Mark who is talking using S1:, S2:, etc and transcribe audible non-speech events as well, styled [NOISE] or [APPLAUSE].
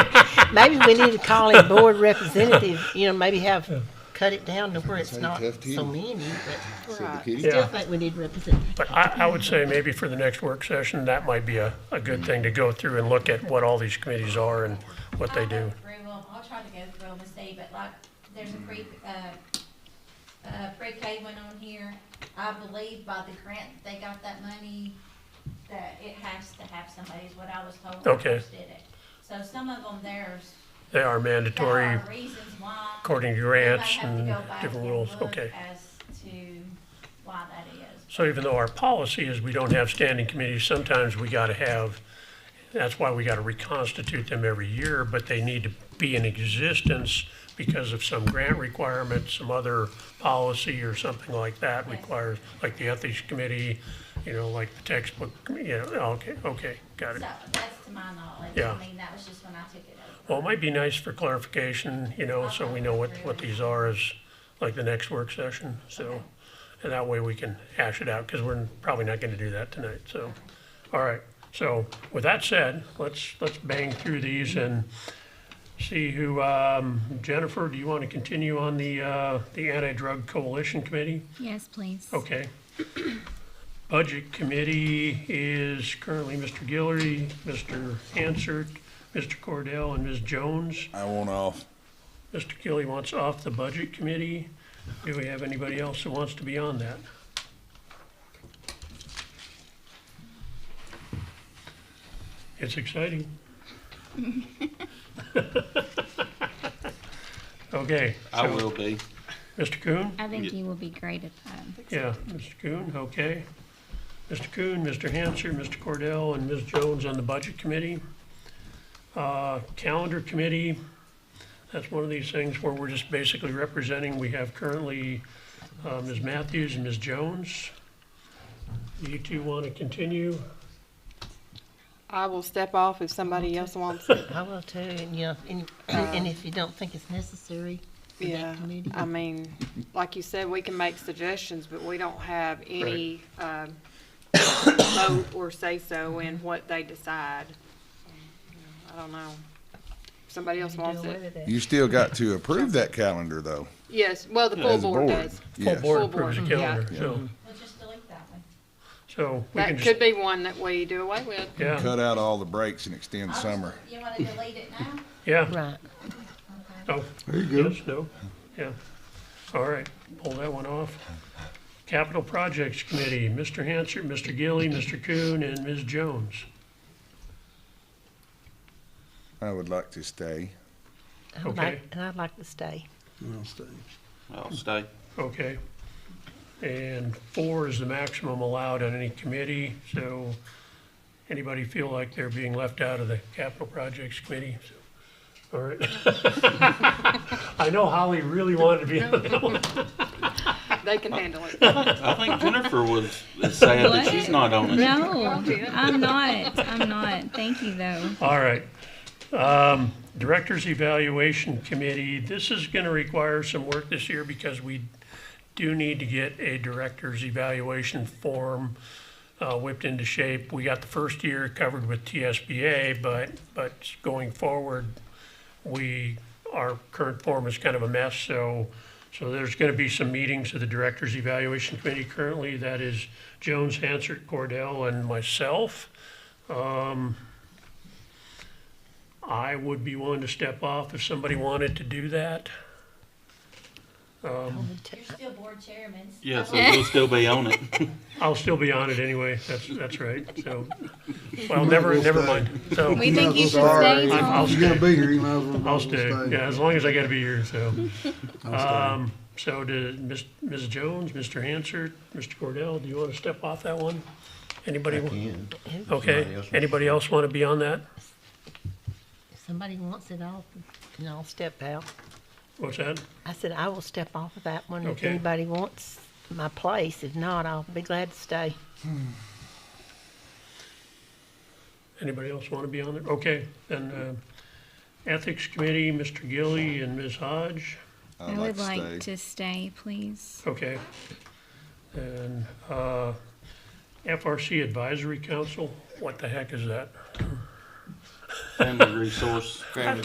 S1: Maybe we need to call in board representative, you know, maybe have, cut it down to where it's
S2: Say
S1: not
S2: tough tea.
S1: so many, but
S2: Say the
S1: I
S2: kitty.
S1: still
S3: Yeah.
S1: think we need representative.
S3: But I, I would say maybe for the next work session, that might be a, a good thing to go through and look at what all these committees are and what they
S4: I'll
S3: do.
S4: go through 'em. I'll try to go through them and see, but like, there's a pre, uh, uh, pre-K one on here. I believe by the grant, that they got that money, that it has to have somebody, is what I was told. when I
S3: Okay.
S4: first Did it. So some of them, there's,
S3: They are
S4: there
S3: mandatory
S4: are reasons why.
S3: according to
S4: We might
S3: grants
S4: have to
S3: and
S4: go back
S3: different
S4: and
S3: rules,
S4: look
S3: okay.
S4: As to why that is.
S3: So even though our policy is we don't have standing committees, sometimes we gotta have, that's why we gotta reconstitute them every year, but they need to be in existence because of some grant requirement, some other policy or something like that requires, like the ethics committee, you know, like the textbook, you know, okay, okay, got it.
S4: So that's to my knowledge.
S3: Yeah.
S4: I mean, that was just when I took it over.
S3: Well, it might be nice for clarification, you know, so we know what, what these are as, like, the next work session, so. And that way we can hash it out, because we're probably not gonna do that tonight, so. All right, so with that said, let's, let's bang through these and see who, um, Jennifer, do you want to continue on the, uh, the Anti-Drug Coalition Committee?
S5: Yes, please.
S3: Okay. Budget Committee is currently Mr. Guillory, Mr. Hansard, Mr. Cordell, and Ms. Jones.
S2: I want off.
S3: Mr. Gilly wants off the Budget Committee. Do we have anybody else that wants to be on that? It's exciting. Okay,
S6: I will be.
S3: Mr. Coon?
S5: I think you will be great um, at that.
S3: Yeah, Mr. Coon, okay. Mr. Coon, Mr. Hanser, Mr. Cordell, and Ms. Jones on the Budget Committee. Uh, Calendar Committee, that's one of these things where we're just basically representing, we have currently uh, Ms. Matthews and Ms. Jones. Do you two want to continue?
S7: I will step off if somebody
S1: [LAUGHS]
S7: else wants it.
S1: I will too, and you know, and, and if you don't think it's necessary for
S7: Yeah,
S1: that committee.
S7: I mean, like you said, we can make suggestions, but we don't have any, um, vote or say-so in
S1: Mm-hmm.
S7: what they decide. I don't know. If Somebody else
S1: Do
S7: wants
S1: away
S7: it.
S1: with it.
S2: You still got to approve that calendar though.
S7: Yes, well, the full
S2: as a
S7: board does.
S3: Full
S2: Yes.
S3: board
S7: Full
S3: approves the
S7: board, yeah.
S3: calendar, so,
S4: We'll just delete that one.
S3: so we can
S7: That could
S3: just,
S7: be one that we do away with.
S3: yeah,
S2: Cut out all the breaks and extend summer.
S4: You wanna delete it now?
S3: yeah.
S1: Right.
S3: Oh. There you go. Yes, no, yeah. All right, pull that one off. Capital Projects Committee, Mr. Hanser, Mr. Gilly, Mr. Coon, and Ms. Jones.
S2: I would like to stay.
S1: I would like-
S3: Okay.
S1: And I'd like to stay.
S6: I'll stay.
S3: Okay. And four is the maximum allowed on any committee, so anybody feel like they're being left out of the Capital Projects Committee? So, All right. [LAUGHS] I know Holly really wanted to be on that one.
S7: They can handle it.
S6: I think Jennifer was is sad that she's not
S5: [LAUGHS]
S6: on it.
S5: No, I'm not. I'm not. Thank you, though.
S3: All right. Um, Directors Evaluation Committee, this is going to require some work this year because we do need to get a director's evaluation form uh, whipped into shape. We got the first year covered with TSBA, but, but going forward, we, our current form is kind of a mess, so, so there's gonna be some meetings of the Directors Evaluation Committee currently. That is Jones, Hansard, Cordell, and myself. Um, I would be willing to step off if somebody wanted to do that.
S1: I would t-
S4: You're still board chairman.
S6: Yeah, so you'll still be on it.
S3: I'll still be on it anyway, that's, that's right, so, well, never, never mind, so.
S5: We think you should
S8: Sorry.
S5: stay,
S3: I'm-
S5: Tom.
S3: I'll
S8: You gotta
S3: stay,
S8: be here, you might as well.
S3: I'll stay, yeah, as long as I gotta be here, so.
S8: I'll
S3: Um, so did Ms., Ms. Jones, Mr. Hansard, Mr. Cordell, do you wanna step off that one? Anybody? wa- Okay, anybody else wanna be on that?
S1: If somebody wants it, I'll, and I'll step out.
S3: What's that?
S1: I said, I will step off of that one if
S3: Okay.
S1: anybody wants my place. If not, I'll be glad to stay.
S3: Anybody else wanna be on it? Okay, then, uh, Ethics Committee, Mr. Gilly and Ms. Hodge,
S5: I
S2: I'd like
S5: would
S2: to
S5: like
S2: stay.
S5: to stay, please.
S3: okay. And, uh, FRC Advisory Council, what the heck is that?
S6: Family resource.